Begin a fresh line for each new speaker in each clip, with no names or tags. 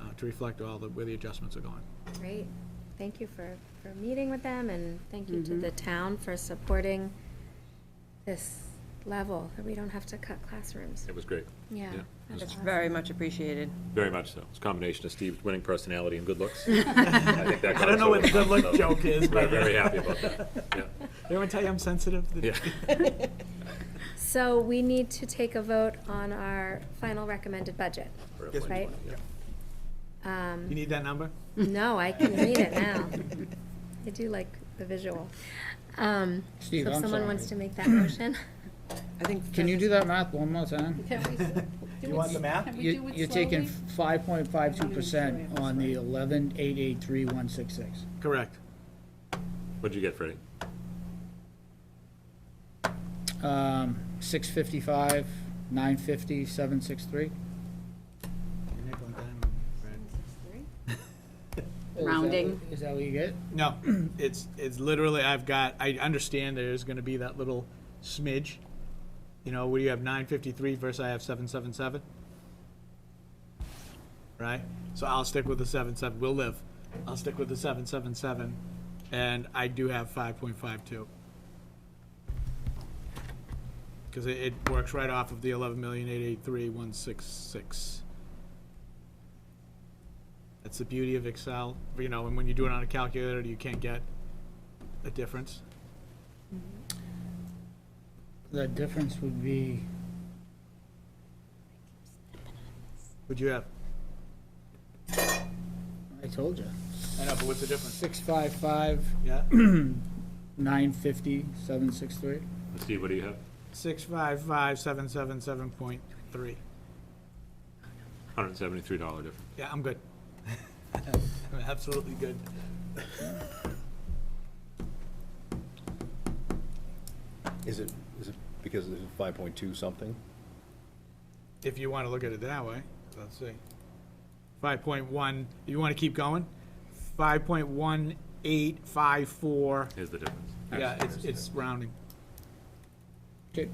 Uh, to reflect all the, where the adjustments are going.
Great. Thank you for, for meeting with them, and thank you
Mm-hmm.
to the town for supporting this level, that we don't have to cut classrooms.
It was great,
Yeah.
Yeah.
that is
Very
awesome.
much appreciated.
very much so. It's a combination of Steve's winning personality and good looks. I think that
I don't know what the
covers
good
all
look joke
of it, so
is,
We're
but.
very happy about that, yeah.
Everyone tell you I'm sensitive?
Yeah.
So we need to take a vote on our final recommended budget.
For
Yes, we
FY20,
do.
yeah.
Um,
You need that number?
No, I can read it now. I do like the visual. Um, So
Steve,
if
I'm
someone wants to
sorry.
make that motion.
I think.
Can you do that math one more time?
Can we s-
You
do it
want
s-
the map?
Can we
You-
do it
You're taking
slowly?
five point five two percent on the eleven eight eight three one six six.
Correct.
What'd you get, Freddie?
Um, six fifty-five, nine fifty, seven six three.
Your nickel and dime, right.
Rounding.
Is that what you get?
No, it's, it's literally, I've got, I understand there's gonna be that little smidge. You know, where you have nine fifty-three versus I have seven seven seven. Right? So I'll stick with the seven seven, we'll live. I'll stick with the seven seven seven, and I do have five point five two. Cause it, it works right off of the eleven million eight eight three one six six. That's the beauty of Excel, you know, and when you do it on a calculator, you can't get a difference.
The difference would be,
Would you have?
I told you,
I know, but what's the difference?
six five five,
Yeah,
nine fifty, seven six three.
Steve, what do you have?
six five five seven seven seven point three.
Hundred and seventy-three dollar difference.
Yeah, I'm good. I'm absolutely good.
Is it, is it because it's five point two something?
If you want to look at it that way, let's see. Five point one, you want to keep going? Five point one eight five four.
Here's the difference.
Yeah, it's, it's rounding.
Okay,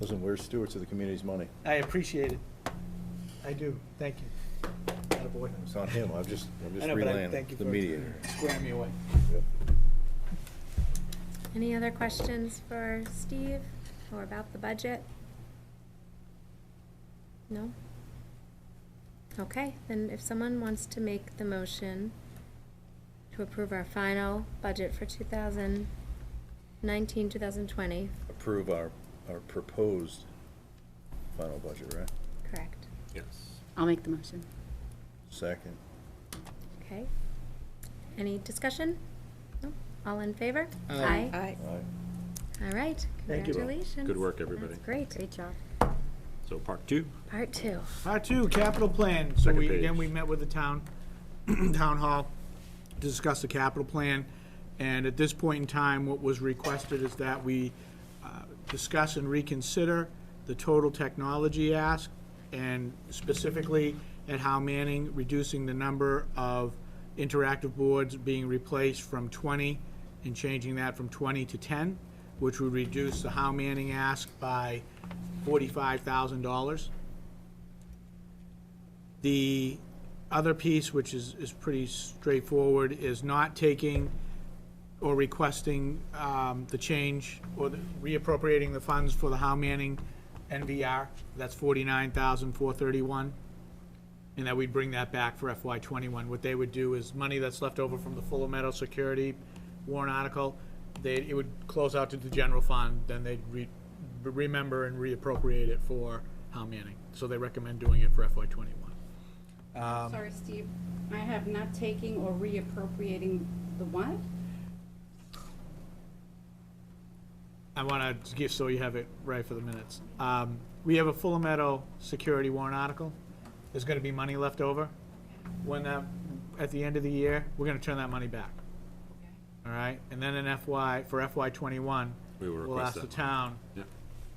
Listen, we're stewards of the community's money.
I appreciate it. I do. Thank you. Attaboy.
It's not him, I'm just, I'm
I
just
know, but I
relaying
thank you
the
for-
mediator.
Square me away.
Any other questions for Steve or about the budget? No? Okay, then if someone wants to make the motion to approve our final budget for 2019, 2020,
Approve our, our proposed final budget, right?
correct?
Yes.
I'll make the motion.
Second.
Okay. Any discussion? No? All in favor?
Aye.
Aye.
Aye.
All right,
Thank you.
congratulations.
Good work, everybody.
That's great.
Great job.
So part two,
Part two.
Part two, capital plan. So
Second
we, again,
page.
we met with the town, town hall, to discuss the capital plan. And at this point in time, what was requested is that we uh, discuss and reconsider the total technology ask, and specifically at Howe Manning, reducing the number of interactive boards being replaced from 20 and changing that from 20 to 10, which would reduce the Howe Manning ask by $45,000. The other piece, which is, is pretty straightforward, is not taking or requesting um, the change or the- reappropriating the funds for the Howe Manning NVR. That's forty-nine thousand, four thirty-one. And that we'd bring that back for FY twenty-one. What they would do is money that's left over from the Fuller Meadow Security warrant article, they, it would close out to the general fund, then they'd re, remember and reappropriate it for Howe Manning. So they recommend doing it for FY twenty-one.
Sorry, Steve, I have not taking or reappropriating the what?
I want to give, so you have it right for the minutes. Um, We have a Full Meadow security warrant article. There's going to be money left over. When that, at the end of the year, we're going to turn that money back. All right? And then in FY, for FY '21,
We will
we'll ask
request
the
that.
town
Yep.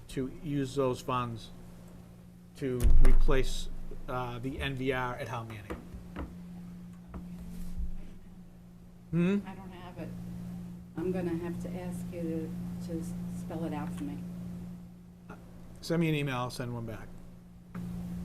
to use those funds to replace uh, the NVR at Howe Manning.
I don't have it. I'm gonna have to ask you to, to spell it out for me.
Send me an email, I'll send one back.